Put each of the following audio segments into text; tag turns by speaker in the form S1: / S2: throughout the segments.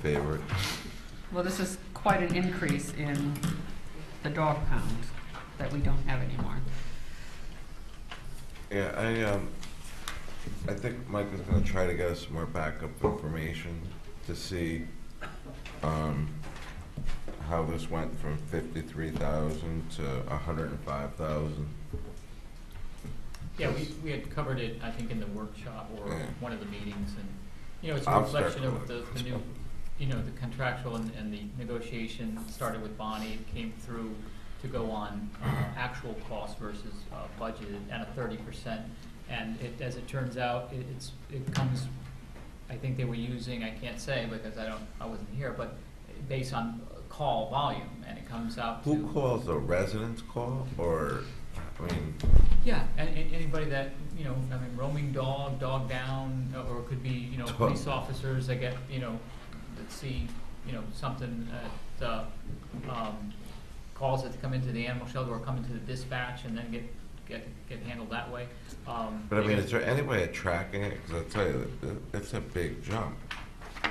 S1: favorite.
S2: Well, this is quite an increase in the dog pound that we don't have anymore.
S1: Yeah, I, um, I think Mike is gonna try to get us more backup information to see, um, how this went from fifty-three thousand to a hundred and five thousand.
S3: Yeah, we, we had covered it, I think, in the workshop or
S1: Yeah.
S3: one of the meetings, and, you know, it's a
S1: I'll start
S3: reflection of the,
S1: with
S3: the new, you know, the contractual and, and the negotiation started with Bonnie, it came through to go on uh, actual cost versus uh, budgeted at a thirty percent. And it, as it turns out, it, it's, it comes, I think they were using, I can't say because I don't, I wasn't here, but based on call volume, and it comes out to.
S1: Who calls, the residents call, or, I mean,
S3: Yeah, and, and anybody that, you know, I mean, roaming dog, dog down, uh, or it could be, you know,
S1: Dog.
S3: police officers that get, you know, that see, you know, something at, uh, um, calls that come into the animal shelter or come into the dispatch and then get, get, get handled that way. Um,
S1: but I
S3: they
S1: mean,
S3: get-
S1: is there any way of tracking it? Cause I'll tell you, it- it's a big jump.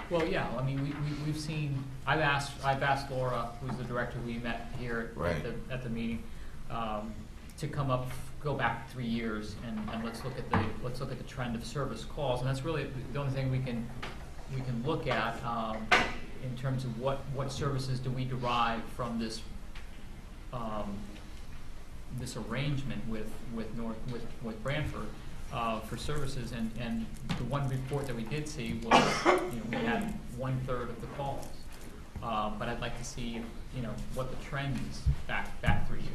S3: Well, yeah, I mean, we, we, we've seen, I've asked, I've asked Laura, who's the director we met here
S1: Right.
S3: at the, at the meeting, um, to come up, go back three years and, and let's look at the, let's look at the trend of service calls. And that's really the only thing we can, we can look at, um, in terms of what, what services do we derive from this, um, this arrangement with, with North, with, with Branford, uh, for services, and, and the one report that we did see was, you know, we had one-third of the calls. Uh, but I'd like to see, you know, what the trend is back, back three years.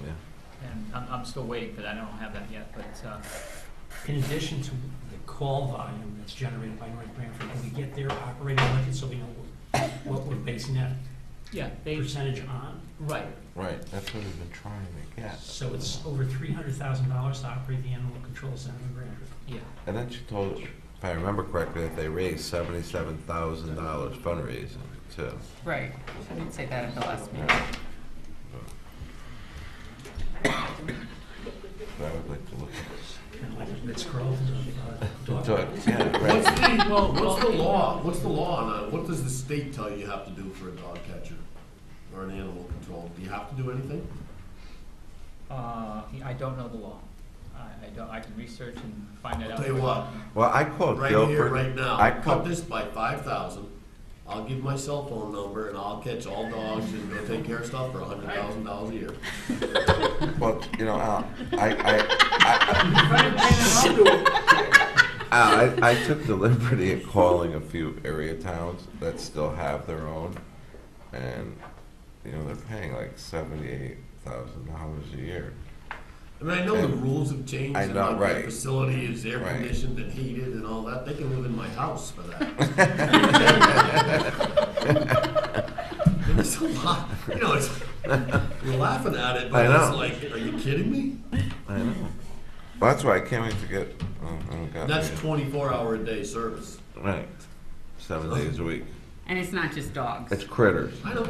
S1: Yeah.
S3: And I'm, I'm still waiting for that, I don't have that yet, but, uh,
S4: In addition to the call volume that's generated by North Branford, can we get their operating budget so we know what- what we're basing that
S3: yeah, they,
S4: percentage on?
S3: right,
S1: Right, that's what we've been trying to get.
S4: So it's over three hundred thousand dollars to operate the animal control center in Branford.
S3: yeah,
S1: And then she told, if I remember correctly, that they raised seventy-seven thousand dollars fundraising too.
S2: Right, I didn't say that at the last meeting.
S1: Yeah. But I would like to look
S4: Kind of like Miss Grove, uh,
S1: at
S4: dog.
S1: the dog, yeah,
S5: What's
S1: right.
S5: the,
S3: Well,
S5: what's the
S3: well,
S5: law, what's the law on, a- what does the state tell you you have to do for a dog catcher? Or an animal control, do you have to do anything?
S3: uh, I don't know the law. I, I don't, I can research and find that out.
S5: I'll tell you what,
S1: Well, I called
S5: right here,
S1: Guilford.
S5: right
S1: I
S5: now, cut
S1: called,
S5: this by five thousand, I'll give my cell phone number and I'll catch all dogs and go take care of stuff for a hundred thousand dollars a year.
S1: well, you know, Al, I, I, I, Al, I, I took the liberty of calling a few area towns that still have their own. And, you know, they're paying like seventy-eight thousand dollars a year.
S5: I mean, I know the
S1: And-
S5: rules have changed
S1: I
S5: and
S1: know,
S5: like
S1: right.
S5: the facility is air
S1: Right.
S5: conditioned and heated and all that, they can live in my house for that. It's a lot, you know, it's, you're laughing at it, but
S1: I know.
S5: it's like, are you kidding me?
S1: I know. Well, that's why I can't wait to get. Oh, oh God.
S5: That's
S1: yeah.
S5: twenty-four hour a day service.
S1: right. Seven days a week.
S2: And it's not just
S1: It's
S2: dogs.
S1: critters.
S5: I know.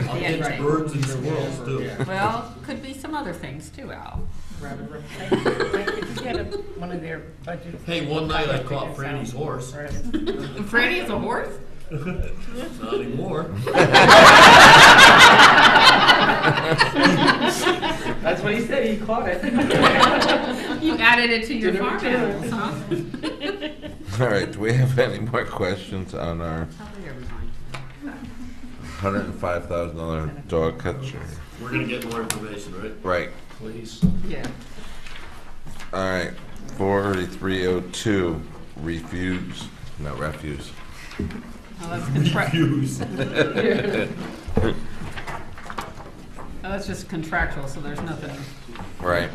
S5: I'll
S2: Yeah,
S5: catch
S2: right.
S5: birds and squirrels too.
S2: Well, could be some other things too, Al.
S6: Rather replace, like, if you get a- one of their budgets.
S5: Hey, one night I caught Franny's horse,
S2: Franny is a horse?
S5: not anymore.
S6: That's what he said, he caught it.
S2: You added it to your
S6: Did it
S2: farm
S6: return?
S2: animals, huh?
S1: All right. Do we have any more questions on our
S2: How late are we going?
S1: hundred and five thousand dollar dog catcher?
S5: We're gonna get more information, right?
S1: Right.
S5: Please.
S2: Yeah.
S1: All right. Forty-three oh two. Refuse. No refuse.
S2: Now let's contract,
S5: Use.
S2: now that's just contractual, so there's nothing.
S1: Right.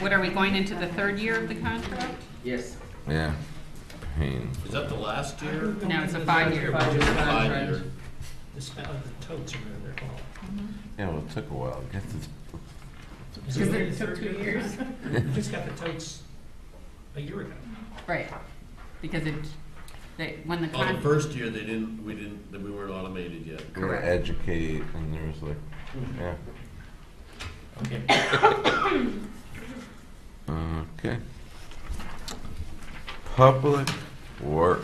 S2: What, are we going into the third year of the contract?
S6: Yes.
S1: Yeah. Pain.
S5: Is that the last year?
S2: No, it's a five-year budget
S5: Five year.
S2: contract.
S4: The spell of the totes or whatever they're called.
S1: Yeah. Well, it took a while to get to.
S4: Is
S2: Because
S4: it-
S2: it took two years.
S4: We just got the totes a year ago.
S2: Right, because it, they, when the
S5: On Oh, the
S2: contract,
S5: first year, they didn't, we didn't, that we weren't automated yet.
S1: We were
S2: Correct.
S1: educate, and there was like, yeah.
S4: Okay.
S1: Okay. Public or